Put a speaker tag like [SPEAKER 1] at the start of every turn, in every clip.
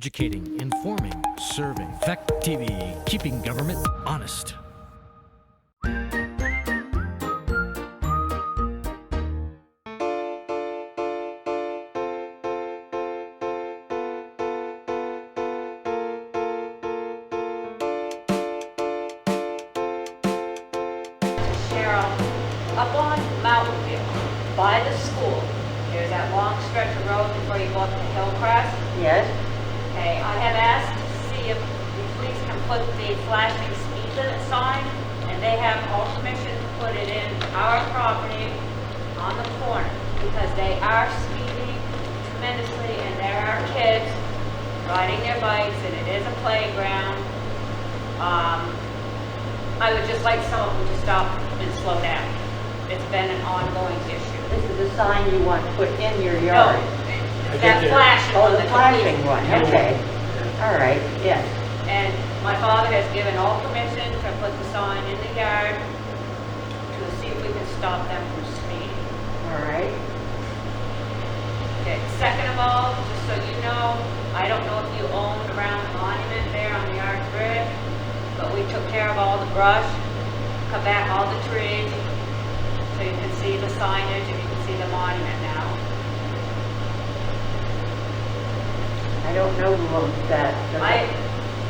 [SPEAKER 1] Educating, informing, serving. Fact TV, keeping government honest.
[SPEAKER 2] Cheryl, up on Mountain View, by the school, there's that long stretch of road before you go up to Hillcrest.
[SPEAKER 3] Yes,
[SPEAKER 2] Okay, I have asked to see if the police can put the flashing speed limit sign, and they have all permission to put it in our property on the corner, because they are speeding tremendously, and there are kids riding their bikes, and it is a playground. Um, I would just like some of them to stop and slow down. It's been an ongoing issue.
[SPEAKER 3] this is the sign you want put in your
[SPEAKER 2] No,
[SPEAKER 3] yard.
[SPEAKER 2] that flash
[SPEAKER 3] Oh,
[SPEAKER 2] on
[SPEAKER 3] the
[SPEAKER 2] the
[SPEAKER 3] flashing
[SPEAKER 2] computer.
[SPEAKER 3] one, okay. All right, yes.
[SPEAKER 2] And my father has given all permission to put the sign in the yard to see if we can stop them from speeding.
[SPEAKER 3] All right,
[SPEAKER 2] Okay, second of all, just so you know, I don't know if you own around the monument there on the Arch Bridge, but we took care of all the brush, cut back all the trees, so you can see the signage and you can see the monument now.
[SPEAKER 3] I don't know who owns that. but-
[SPEAKER 2] I,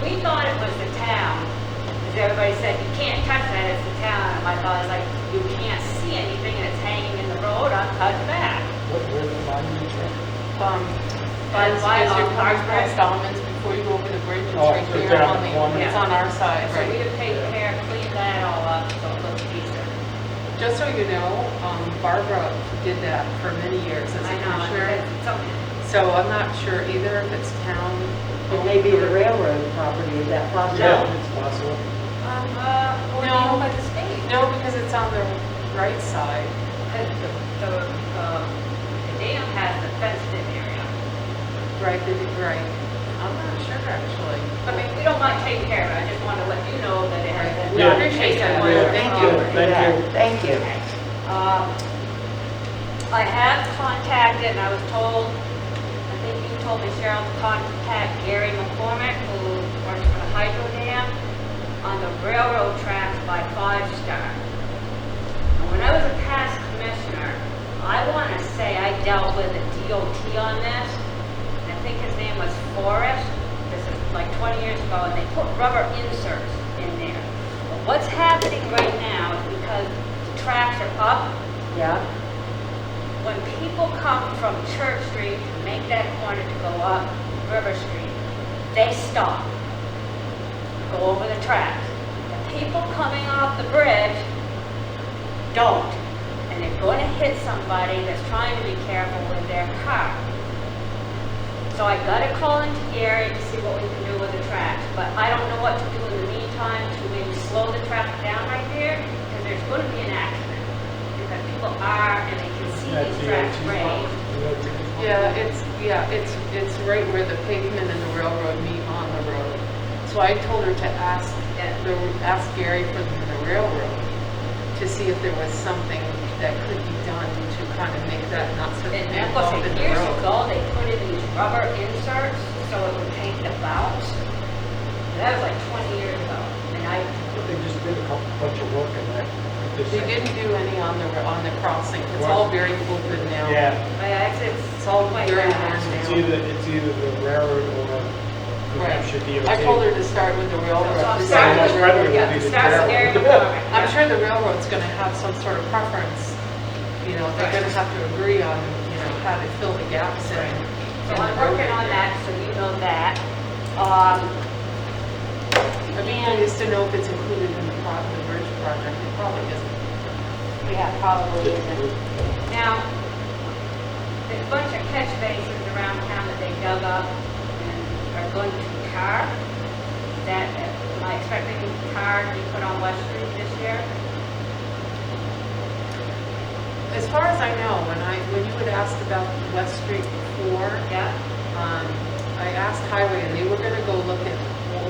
[SPEAKER 2] we thought it was the town, because everybody said, you can't touch that, it's the town. And my thought is like, you can't see anything and it's hanging in the road, I'm cutting back.
[SPEAKER 4] What, where the monument is?
[SPEAKER 5] Um,
[SPEAKER 2] By-
[SPEAKER 5] as,
[SPEAKER 2] by
[SPEAKER 5] as you're
[SPEAKER 2] on our
[SPEAKER 5] coming
[SPEAKER 2] bridge.
[SPEAKER 5] from Solomon's, before you go over the bridge, it's
[SPEAKER 4] Oh,
[SPEAKER 5] right
[SPEAKER 4] it's
[SPEAKER 5] there
[SPEAKER 4] down
[SPEAKER 5] on the,
[SPEAKER 4] one.
[SPEAKER 5] it's on our side,
[SPEAKER 2] So we
[SPEAKER 5] right?
[SPEAKER 2] have taken care, cleaned that all up, so it looks decent.
[SPEAKER 5] Just so you know, um, Barbara did that for many years as
[SPEAKER 2] I know, and
[SPEAKER 5] a commissioner.
[SPEAKER 2] it's something,
[SPEAKER 5] So I'm not sure either if it's town.
[SPEAKER 3] It may be the railroad property, is that possible?
[SPEAKER 4] Yeah, it's possible.
[SPEAKER 2] um, uh, or
[SPEAKER 5] No.
[SPEAKER 2] even by the state.
[SPEAKER 5] No, because it's on the right side.
[SPEAKER 2] Because the, the, um, the dam has the fenced in area.
[SPEAKER 5] Right, they did, right. I'm not sure actually.
[SPEAKER 2] I mean, we don't mind taking care of it, I just wanted to let you know that it has been.
[SPEAKER 4] Yeah.
[SPEAKER 5] Appreciate that.
[SPEAKER 2] One of the
[SPEAKER 5] Thank
[SPEAKER 4] you.
[SPEAKER 2] properties.
[SPEAKER 4] Thank
[SPEAKER 3] Oh, Yeah, Thank you.
[SPEAKER 2] Um, I have contacted, and I was told, I think you told me Cheryl, to contact Gary McCormick, who works for the hydro dam, on the railroad tracks by Five Star. And When I was a past commissioner, I want to say I dealt with the DOT on this. I think his name was Forrest. This is like 20 years ago, and they put rubber inserts in there. But What's happening right now is because the tracks are up,
[SPEAKER 3] Yeah,
[SPEAKER 2] when people come from Church Street to make that corner to go up River Street, they stop, go over the tracks. The people coming off the bridge don't, and they're going to hit somebody that's trying to be careful with their car. So I got to call into Gary to see what we can do with the tracks, but I don't know what to do in the meantime to maybe slow the traffic down right there, because there's going to be an accident. Because people are, and they can see
[SPEAKER 4] That's
[SPEAKER 2] these
[SPEAKER 4] the
[SPEAKER 2] tracks
[SPEAKER 4] DOT.
[SPEAKER 2] raised.
[SPEAKER 4] DOT.
[SPEAKER 5] Yeah, it's, yeah, it's, it's right where the pavement and the railroad meet on the road. So I told her to ask, eh, the ask Gary for the railroad to see if there was something that could be done to kind of make that not so
[SPEAKER 2] And
[SPEAKER 5] connect off
[SPEAKER 2] Nicholson,
[SPEAKER 5] in the
[SPEAKER 2] years
[SPEAKER 5] road.
[SPEAKER 2] ago, they put in these rubber inserts, so it would take the bounce. And That was like 20 years ago, and I,
[SPEAKER 4] But They just did a couple, bunch of work in that.
[SPEAKER 5] They didn't do any on the, on the crossing. It's all very open now.
[SPEAKER 4] Yeah,
[SPEAKER 2] I, it's, it's
[SPEAKER 5] It's
[SPEAKER 2] all
[SPEAKER 5] all
[SPEAKER 2] my
[SPEAKER 5] very
[SPEAKER 2] bad.
[SPEAKER 4] it's
[SPEAKER 5] worn down.
[SPEAKER 4] either, it's either the railroad or New
[SPEAKER 5] Right.
[SPEAKER 4] Hampshire DOT.
[SPEAKER 5] I told her to start with the
[SPEAKER 2] So
[SPEAKER 5] railroad.
[SPEAKER 2] I'm
[SPEAKER 5] to see
[SPEAKER 2] starting
[SPEAKER 5] what
[SPEAKER 4] with-
[SPEAKER 5] the
[SPEAKER 4] Right,
[SPEAKER 2] with,
[SPEAKER 4] we
[SPEAKER 2] yeah,
[SPEAKER 4] need to
[SPEAKER 2] start with Gary
[SPEAKER 4] tell.
[SPEAKER 2] McCormick.
[SPEAKER 5] I'm sure the railroad's gonna have some sort of preference, you know, they're gonna have to agree on, you know, how to fill the gaps in.
[SPEAKER 2] So I'm working on that, so you know that. Um,
[SPEAKER 5] I'd be curious to know if it's included in the pro- the bridge project, it probably isn't.
[SPEAKER 2] Yeah, probably isn't. Now, there's a bunch of catch basins around town that they dug up and are going to tar. That, am I expecting tar to be put on West Street this year?
[SPEAKER 5] As far as I know, when I, when you had asked about West Street before,
[SPEAKER 2] Yeah?
[SPEAKER 5] um, I asked Highway and they were gonna go look at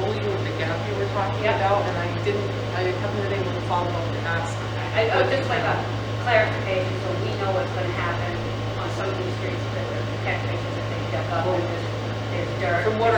[SPEAKER 5] only with the gap you were talking
[SPEAKER 2] Yeah.
[SPEAKER 5] about, and I didn't, I haven't been able to follow up to ask.
[SPEAKER 2] I, I would just like a clarification, so we know what's gonna happen on some of these streets that the catch basins that they dug up and there's, there's dirt.
[SPEAKER 5] From what